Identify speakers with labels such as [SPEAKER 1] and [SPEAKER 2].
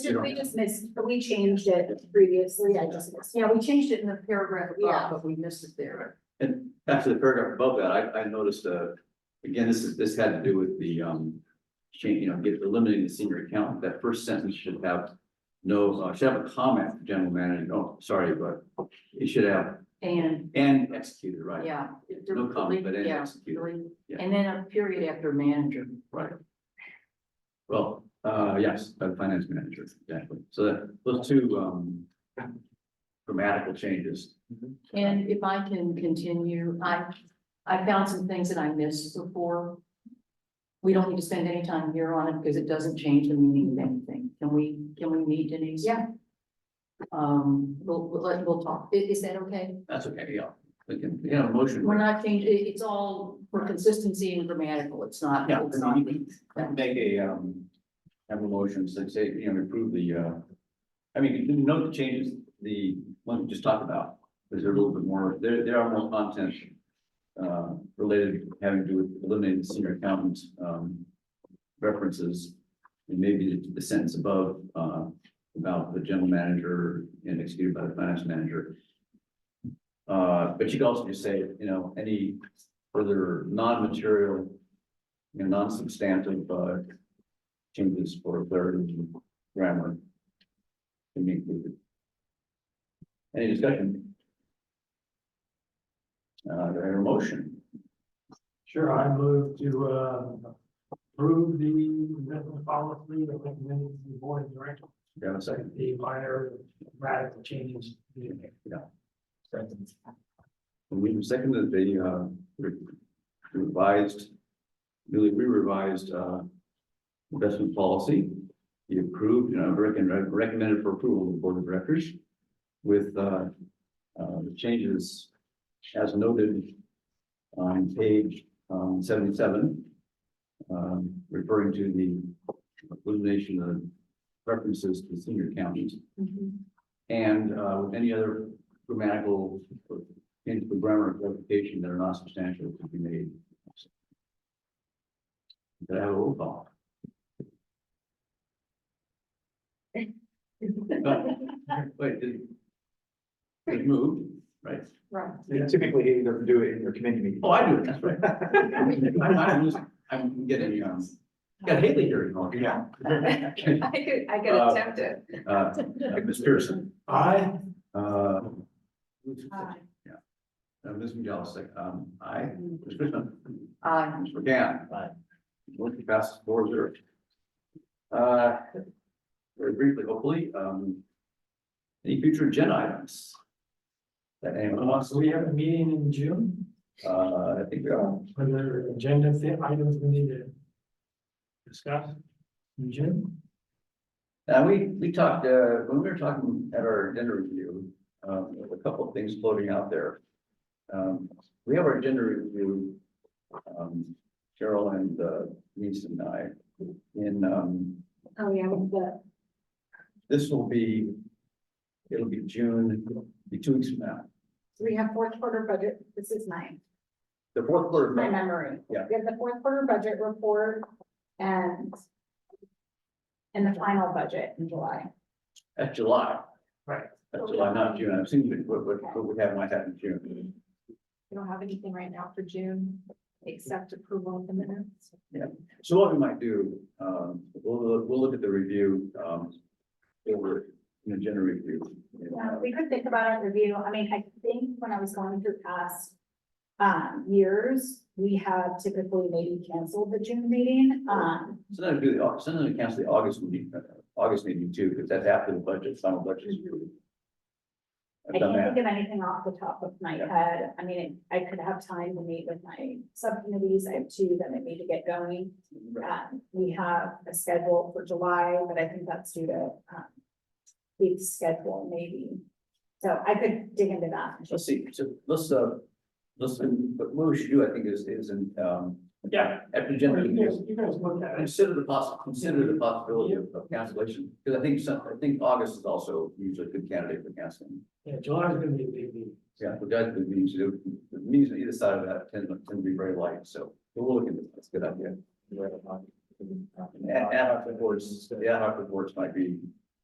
[SPEAKER 1] Did we just missed, we changed it previously, I just missed, yeah, we changed it in the paragraph above,
[SPEAKER 2] Yeah.
[SPEAKER 1] Oh, but we missed it there.
[SPEAKER 3] And back to the paragraph above that, I, I noticed, uh, again, this is, this had to do with the, um, change, you know, get, eliminating the senior accountant, that first sentence should have no, uh, should have a comment, for general manager, no, sorry, but it should have,
[SPEAKER 2] And,
[SPEAKER 3] and executed, right?
[SPEAKER 2] yeah.
[SPEAKER 3] No comment, but and
[SPEAKER 2] Yeah,
[SPEAKER 3] executed,
[SPEAKER 2] really.
[SPEAKER 3] Yeah.
[SPEAKER 2] And then a period after manager.
[SPEAKER 3] right? Well, uh, yes, by the finance manager, exactly, so that, those two, um, grammatical changes.
[SPEAKER 2] Mm-hmm. And if I can continue, I, I found some things that I missed before. We don't need to spend any time here on it because it doesn't change the meaning of anything. Can we, can we meet Denise?
[SPEAKER 1] Yeah.
[SPEAKER 2] Um, we'll, we'll, let- we'll talk. I- Is, that okay?
[SPEAKER 3] That's okay, yeah, we can, you know, motion.
[SPEAKER 2] We're not changing, it, it's all for consistency and grammatical. It's not,
[SPEAKER 3] Yeah.
[SPEAKER 2] it's not.
[SPEAKER 3] Make a, um, have a motion, so say, you know, approve the, uh, I mean, you didn't note the changes, the one we just talked about, because they're a little bit more, there, there are more content. Uh, related, having to do with eliminating the senior accountant, um, references. And maybe the- the sentence above, uh, about the general manager and executed by the finance manager. Uh, but you could also just say, you know, any further non-material you know, non-substantive, uh, changes for clarity and grammar. Can be included. Any discussion? Uh, do I hear a motion?
[SPEAKER 4] Sure, I move to uh, approve the written policy that recommended to the board of directors,
[SPEAKER 3] Do I have a second?
[SPEAKER 4] the minor radical changes. being made.
[SPEAKER 3] Yeah.
[SPEAKER 4] Second.
[SPEAKER 3] We have seconded the, uh, re- revised, newly re-revised, uh, investment policy. The approved, you know, recommend- recommended for approval of the board of directors with, uh, uh, the changes as noted on page, um, seventy-seven, um, referring to the elimination of references to senior counties
[SPEAKER 1] Mm-hmm.
[SPEAKER 3] and, uh, with any other grammatical into the grammar clarification that are not substantial could be made. Did I have a roll call? Wait, did it moved, right?
[SPEAKER 2] Right.
[SPEAKER 5] You typically either do it in your committee meeting.
[SPEAKER 3] Oh, I do, that's right. I'm, I'm losing, I'm getting, um, got Haley here in Hawk.
[SPEAKER 5] Yeah.
[SPEAKER 3] Uh,
[SPEAKER 6] I could, I
[SPEAKER 3] Uh,
[SPEAKER 6] could attempt it.
[SPEAKER 3] uh, Ms. Pearson,
[SPEAKER 4] I,
[SPEAKER 3] uh,
[SPEAKER 2] Aye.
[SPEAKER 3] uh, Ms. McGillis, like, um, I, Ms. Pearson.
[SPEAKER 2] Aye.
[SPEAKER 3] Mr. McGann.
[SPEAKER 5] Aye.
[SPEAKER 3] Motion passes four zero. Uh, very briefly, hopefully, um, any future agenda items? That anyone wants
[SPEAKER 4] Uh, so we have a meeting in June,
[SPEAKER 3] to, uh, I think, we are.
[SPEAKER 4] for the agenda thi- items we need to discuss in June.
[SPEAKER 3] uh, we, we talked, uh, when we were talking at our agenda review, um, there were a couple of things floating out there. Um, we have our agenda review, um, Cheryl and, uh, Denise and I, in, um,
[SPEAKER 1] Oh, yeah, with the
[SPEAKER 3] This will be, it'll be June, be two weeks from now,
[SPEAKER 1] So we have fourth quarter budget, this is my,
[SPEAKER 3] the fourth quarter.
[SPEAKER 1] my memory.
[SPEAKER 3] Yeah.
[SPEAKER 1] We have the fourth quarter budget report and and the final budget in July.
[SPEAKER 3] At July.
[SPEAKER 4] Right.
[SPEAKER 3] At July, not June, I'm assuming what, what, what we have might happen in June.
[SPEAKER 1] We don't have anything right now for June, except approval of the minutes.
[SPEAKER 3] So what we might do, um, we'll, we'll look at the review, um, over, you know, general review. and,
[SPEAKER 1] Yeah,
[SPEAKER 3] uh,
[SPEAKER 1] we could think about a review. I mean, I think when I was going through past um, years, we have typically maybe canceled the June meeting. Um,
[SPEAKER 3] Sometimes we do the, Au- sometimes we cancel the August meeting, uh, August meeting too, because that's after the budget, final budget. is approved.
[SPEAKER 1] I
[SPEAKER 3] I've done
[SPEAKER 1] can't
[SPEAKER 3] that,
[SPEAKER 1] think of anything off the top of my
[SPEAKER 3] Yeah.
[SPEAKER 1] head. I mean, I could have time to meet with my subcommittees. I have two that I need to get going. Um, we have a schedule for July, but I think that's due to, um, week schedule maybe. So I could dig into that.
[SPEAKER 3] let's see, so let's, uh, let's, but what we should do, I think, is, is, in, um,
[SPEAKER 4] Yeah.
[SPEAKER 3] after
[SPEAKER 4] You
[SPEAKER 3] general review.
[SPEAKER 4] guys, you guys look at it.
[SPEAKER 3] Consider the poss, consider the possibility of of cancellation, because I think some, I think August is also usually a good candidate for canceling.
[SPEAKER 4] Yeah, July's gonna be a big meeting.
[SPEAKER 3] Yeah, we got the means, the means on either side of that tend, tend to be very light, so we'll look into that, that's a good idea. And ad hoc reports, the ad hoc reports might be